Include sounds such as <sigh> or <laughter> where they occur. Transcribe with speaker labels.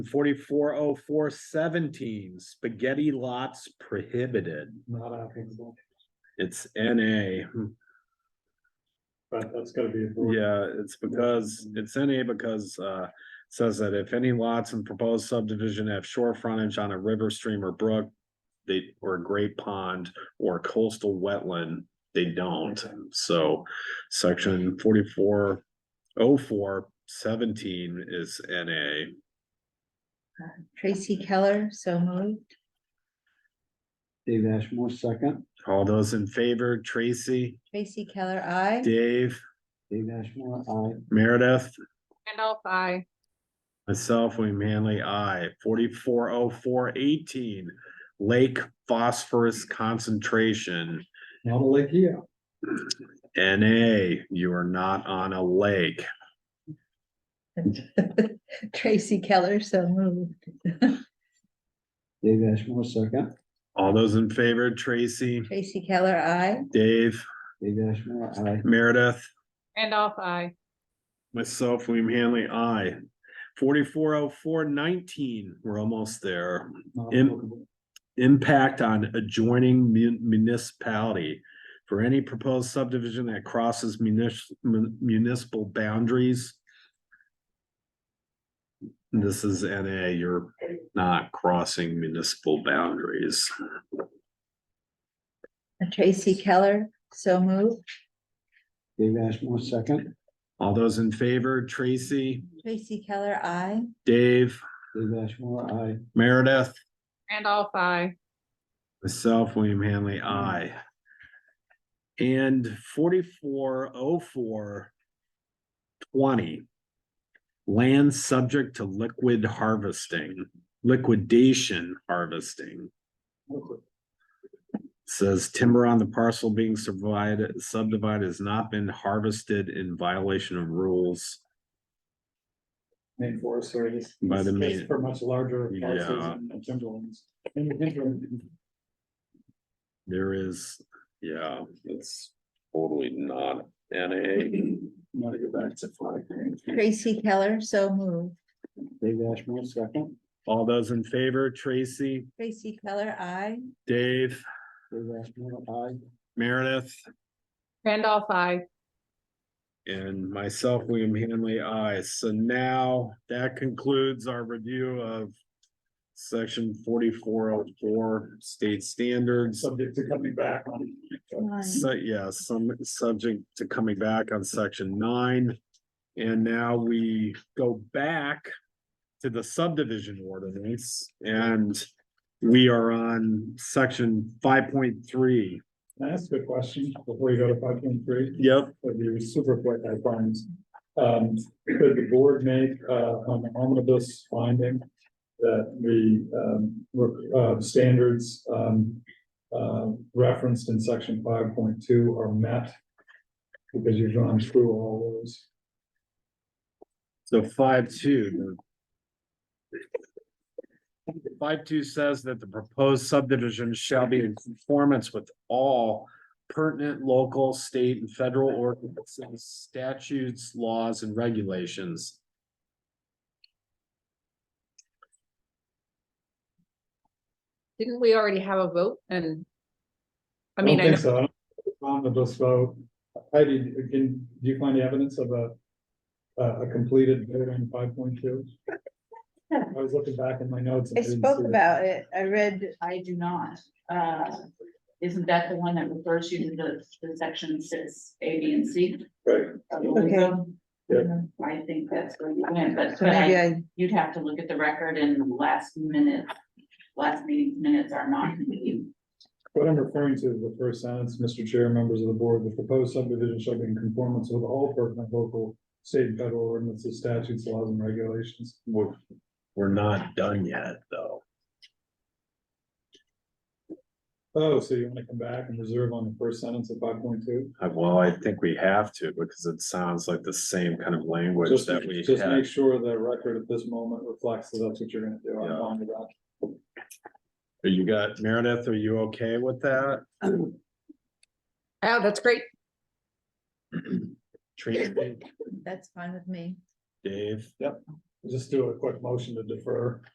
Speaker 1: Forty-four oh four seventeen, spaghetti lots prohibited.
Speaker 2: Not applicable,
Speaker 1: It's NA.
Speaker 2: but that's gotta be. avoided.
Speaker 1: Yeah, it's because, it's NA because, uh, it says that if any lots in proposed subdivision have shore frontage on a river, stream or brook, they, or a great pond or coastal wetland, they don't. So section forty-four oh four seventeen is NA.
Speaker 3: Tracy Keller, so moved.
Speaker 4: Dave Ashmore, second.
Speaker 1: All those in favor, Tracy,
Speaker 3: Tracy Keller, I.
Speaker 1: Dave,
Speaker 4: Dave Ashmore, I.
Speaker 1: Meredith,
Speaker 5: Randolph, I.
Speaker 1: Myself, William Manley, I, forty-four oh four eighteen, lake phosphorus concentration.
Speaker 2: Not a lake here.
Speaker 1: NA, you are not on a lake.
Speaker 3: <laughs> Tracy Keller, so moved. <laughs>
Speaker 4: Dave Ashmore, second.
Speaker 1: All those in favor, Tracy,
Speaker 3: Tracy Keller, I.
Speaker 1: Dave,
Speaker 4: Dave Ashmore, I.
Speaker 1: Meredith,
Speaker 5: Randolph, I.
Speaker 1: myself, William Hanley, I. Forty-four oh four nineteen, we're almost there.
Speaker 2: Not
Speaker 1: Im-
Speaker 2: applicable.
Speaker 1: impact on adjoining mun- municipality. For any proposed subdivision that crosses munis- mun- municipal boundaries. This is NA, you're not crossing municipal boundaries.
Speaker 3: Tracy Keller, so moved.
Speaker 4: Dave Ashmore, second.
Speaker 1: All those in favor, Tracy,
Speaker 3: Tracy Keller, I.
Speaker 1: Dave,
Speaker 4: Dave Ashmore, I.
Speaker 1: Meredith,
Speaker 5: Randolph, I.
Speaker 1: myself, William Hanley, I. And forty-four oh four twenty. Land subject to liquid harvesting, liquidation harvesting. Says timber on the parcel being subdivided, subdivided has not been harvested in violation of rules.
Speaker 2: Main Forest Service.
Speaker 1: By the
Speaker 2: It's
Speaker 1: main-
Speaker 2: just For much larger parcels
Speaker 1: Yeah.
Speaker 2: and timberlands. And the interim,
Speaker 1: There is, yeah, it's totally not NA.
Speaker 2: I'm gonna go back to five.
Speaker 3: Tracy Keller, so moved.
Speaker 4: Dave Ashmore, second.
Speaker 1: All those in favor, Tracy,
Speaker 3: Tracy Keller, I.
Speaker 1: Dave?
Speaker 4: Dave Ashmore, I.
Speaker 1: Meredith
Speaker 5: Randolph, I.
Speaker 1: and myself, William Hanley, I. So now that concludes our review of section forty-four oh four state standards.
Speaker 2: Subject to coming back on.
Speaker 1: So, yeah, some subject to coming back on section nine. And now we go back to the subdivision ordinance and we are on section five point three.
Speaker 2: Can I ask a question before you go to five point three?
Speaker 1: Yep.
Speaker 2: Would be super quick, I promise. Um, could the board make, uh, an omnibus finding that the, um, re- uh, standards, um, uh, referenced in section five point two are met? Because you've gone through all those.
Speaker 1: So five two. Five two says that the proposed subdivision shall be in conformance with all pertinent local, state and federal ordinances, statutes, laws and regulations.
Speaker 5: Didn't we already have a vote and? I
Speaker 2: don't
Speaker 5: mean, I
Speaker 2: think so.
Speaker 5: know
Speaker 2: Omnibus vote. Heidi, can, do you find evidence of a, a a completed vote on five point two? I was looking back in my notes. and
Speaker 6: I
Speaker 2: didn't see
Speaker 6: spoke
Speaker 2: it.
Speaker 6: about it. I read,
Speaker 7: I do not. Uh, Isn't that the one that refers you to the, the section six, A, B, and C?
Speaker 2: Right.
Speaker 7: of the lingo?
Speaker 2: Yeah.
Speaker 7: I think that's where you went, but
Speaker 6: so
Speaker 7: but
Speaker 6: maybe
Speaker 7: I-
Speaker 6: I,
Speaker 7: you'd have to look at the record and the last minute, last meeting's minutes are not. complete.
Speaker 2: What I'm referring to is the first sentence, Mr. Chair, members of the board, the proposed subdivision shall be in conformance with all pertinent local, state and federal ordinances, statutes, laws and regulations.
Speaker 1: We're, we're not done yet, though.
Speaker 2: Oh, so you wanna come back and reserve on the first sentence of five point two?
Speaker 1: Uh, Well, I think we have to because it sounds like the same kind of language
Speaker 2: Just,
Speaker 1: that we
Speaker 2: just
Speaker 1: had.
Speaker 2: make sure the record at this moment reflects that that's what you're gonna do.
Speaker 1: Yeah.
Speaker 2: I'm fine with that.
Speaker 1: Are You got, Meredith, are you okay with that?
Speaker 5: Oh, that's great.
Speaker 1: Tracy,
Speaker 3: That's fine with me.
Speaker 1: Dave?
Speaker 2: Yep. just do a quick motion to defer.